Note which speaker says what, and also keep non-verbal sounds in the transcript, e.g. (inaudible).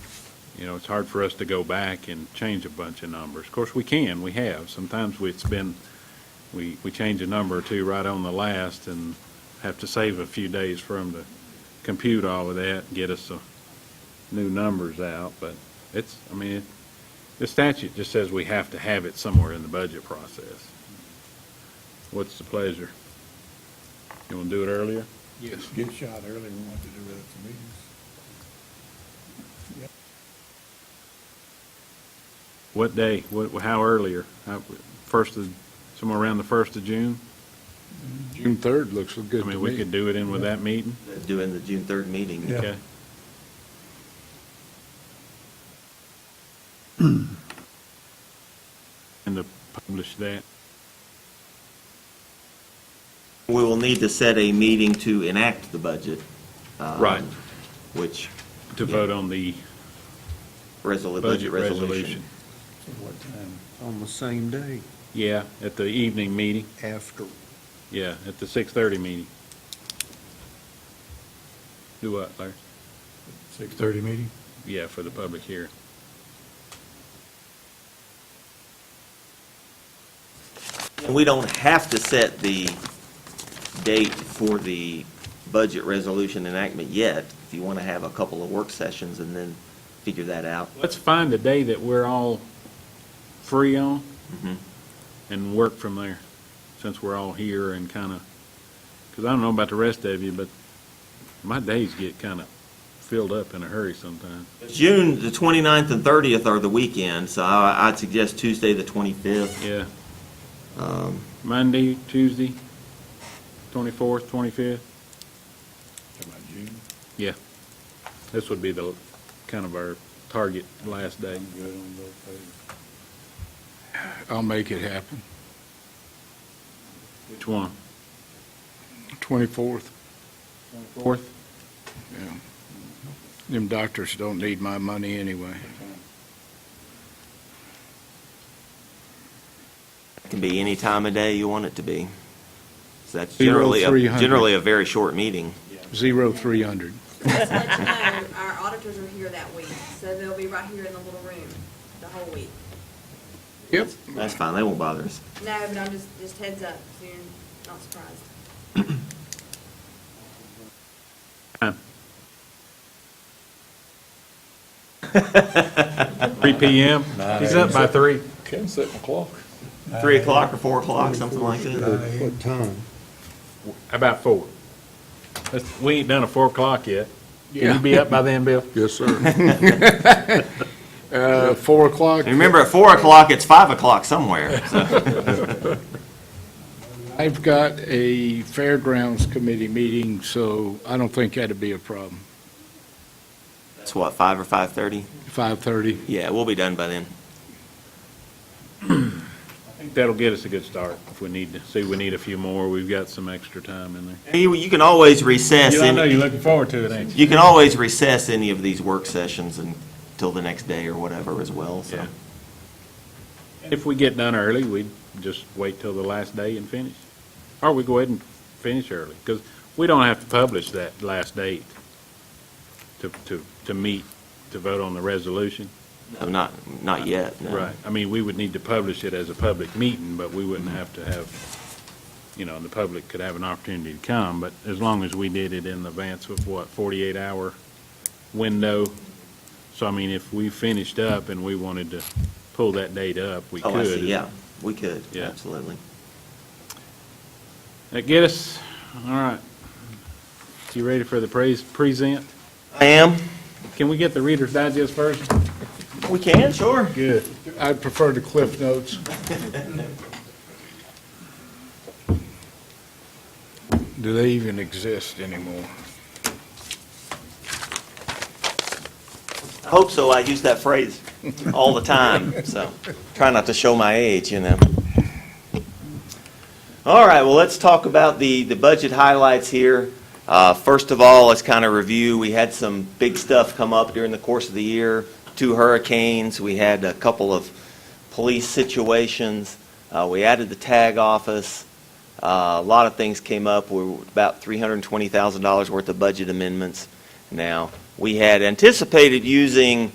Speaker 1: You know, it's hard for us to go back and change a bunch of numbers. Of course, we can, we have. Sometimes we- it's been, we, we change a number or two right on the last and have to save a few days for them to compute all of that, and get us the new numbers out, but it's, I mean, it- the statute just says we have to have it somewhere in the budget process. What's the pleasure? You want to do it earlier?
Speaker 2: Yes. Get shot early, we want to do it at the meetings.
Speaker 1: What day? What, how earlier? How- First of, somewhere around the first of June?
Speaker 3: June third looks good
Speaker 1: I
Speaker 3: to me.
Speaker 1: mean, we could do it in with that meeting,
Speaker 4: doing the June third meeting.
Speaker 2: Yeah.
Speaker 1: (clears throat) okay? And to publish that,
Speaker 4: We will need to set a meeting to enact the budget. um,
Speaker 1: Right.
Speaker 4: Which,
Speaker 1: to
Speaker 4: Yeah.
Speaker 1: vote on the
Speaker 4: resolu-
Speaker 1: budget
Speaker 4: budget
Speaker 1: resolution.
Speaker 4: resolution.
Speaker 2: So what time?
Speaker 5: On the same day
Speaker 1: Yeah, at the evening meeting,
Speaker 5: after.
Speaker 1: yeah, at the six-thirty meeting. Do what, Larry?
Speaker 2: Six-thirty meeting?
Speaker 1: Yeah, for the public hearing.
Speaker 4: And we don't have to set the date for the budget resolution enactment yet. If you want to have a couple of work sessions and then figure that out.
Speaker 1: Let's find a day that we're all free on and work from there, since we're all here and kind of, because I don't know about the rest of you, but my days get kind of filled up in a hurry sometimes.
Speaker 4: June, the 29th and thirtieth are the weekend, so I, I'd suggest Tuesday, the twenty-fifth.
Speaker 1: Yeah. Monday, Tuesday, 24th, 25th,
Speaker 2: Talking about June?
Speaker 1: yeah. This would be the, kind of our target last day.
Speaker 2: I'm good on both days.
Speaker 3: I'll make it happen.
Speaker 1: Which one?
Speaker 3: Twenty-fourth,
Speaker 1: 4th?
Speaker 3: yeah. Them doctors don't need my money anyway.
Speaker 4: Can be any time of day you want it to be. So that's
Speaker 3: Zero,
Speaker 4: generally, a-
Speaker 3: 300.
Speaker 4: generally a very short meeting.
Speaker 3: Zero, three hundred.
Speaker 6: Just let you know, our auditors are here that week, so they'll be right here in the little room the whole week.
Speaker 3: Yep.
Speaker 4: That's fine, they won't bother us. (laughs)
Speaker 6: No, but I'm just, just heads up, so you're not surprised.
Speaker 1: Time. 3 PM? He's up by 3.
Speaker 7: Can set my clock.
Speaker 4: Three o'clock or four o'clock, something like that.
Speaker 5: What time?
Speaker 1: How about 4? Let's- We ain't done a 4 o'clock yet. Can you be up by then, Bill?
Speaker 3: Yes, sir. Uh, four o'clock.
Speaker 4: And remember, at four o'clock, it's five o'clock somewhere.
Speaker 3: I've got a fairgrounds committee meeting, so I don't think that'd be a problem.
Speaker 4: It's what, five or five-thirty?
Speaker 3: Five-thirty.
Speaker 4: Yeah, we'll be done by then.
Speaker 1: That'll get us a good start if we need to. See, we need a few more. We've got some extra time in there.
Speaker 4: You, you can always recess,
Speaker 1: You- I know
Speaker 4: any-
Speaker 1: you're looking forward to it, ain't you?
Speaker 4: you can always recess any of these work sessions until the next day or whatever as well, so.
Speaker 1: Yeah. If we get done early, we'd just wait till the last day and finish. Or we go ahead and finish early, because we don't have to publish that last date to, to, to meet, to vote on the resolution.
Speaker 4: No, Not, not yet, no.
Speaker 1: Right, I mean, we would need to publish it as a public meeting, but we wouldn't have to have, you know, the public could have an opportunity to come, but as long as we did it in advance of what, forty-eight hour window? So I mean, if we finished up and we wanted to pull that date up, we could.
Speaker 4: Oh, I see, yeah, we could,
Speaker 1: Yeah.
Speaker 4: absolutely.
Speaker 1: That Uh, get us, all right. You ready for the praise, present?
Speaker 4: I am?
Speaker 1: Can we get the Reader's Digest first?
Speaker 4: We can, sure.
Speaker 1: Good.
Speaker 3: I prefer the Cliff Notes. Do they even exist anymore?
Speaker 4: I hope so, I use that phrase all the time, so, try not to show my age, you know. All right, well, let's talk about the, the budget highlights here. Uh, First of all, let's kind of review, we had some big stuff come up during the course of the year, two hurricanes, we had a couple of police situations, Uh, we added the tag office, Uh, a lot of things came up, we were about $320,000 worth of budget amendments now. We had anticipated using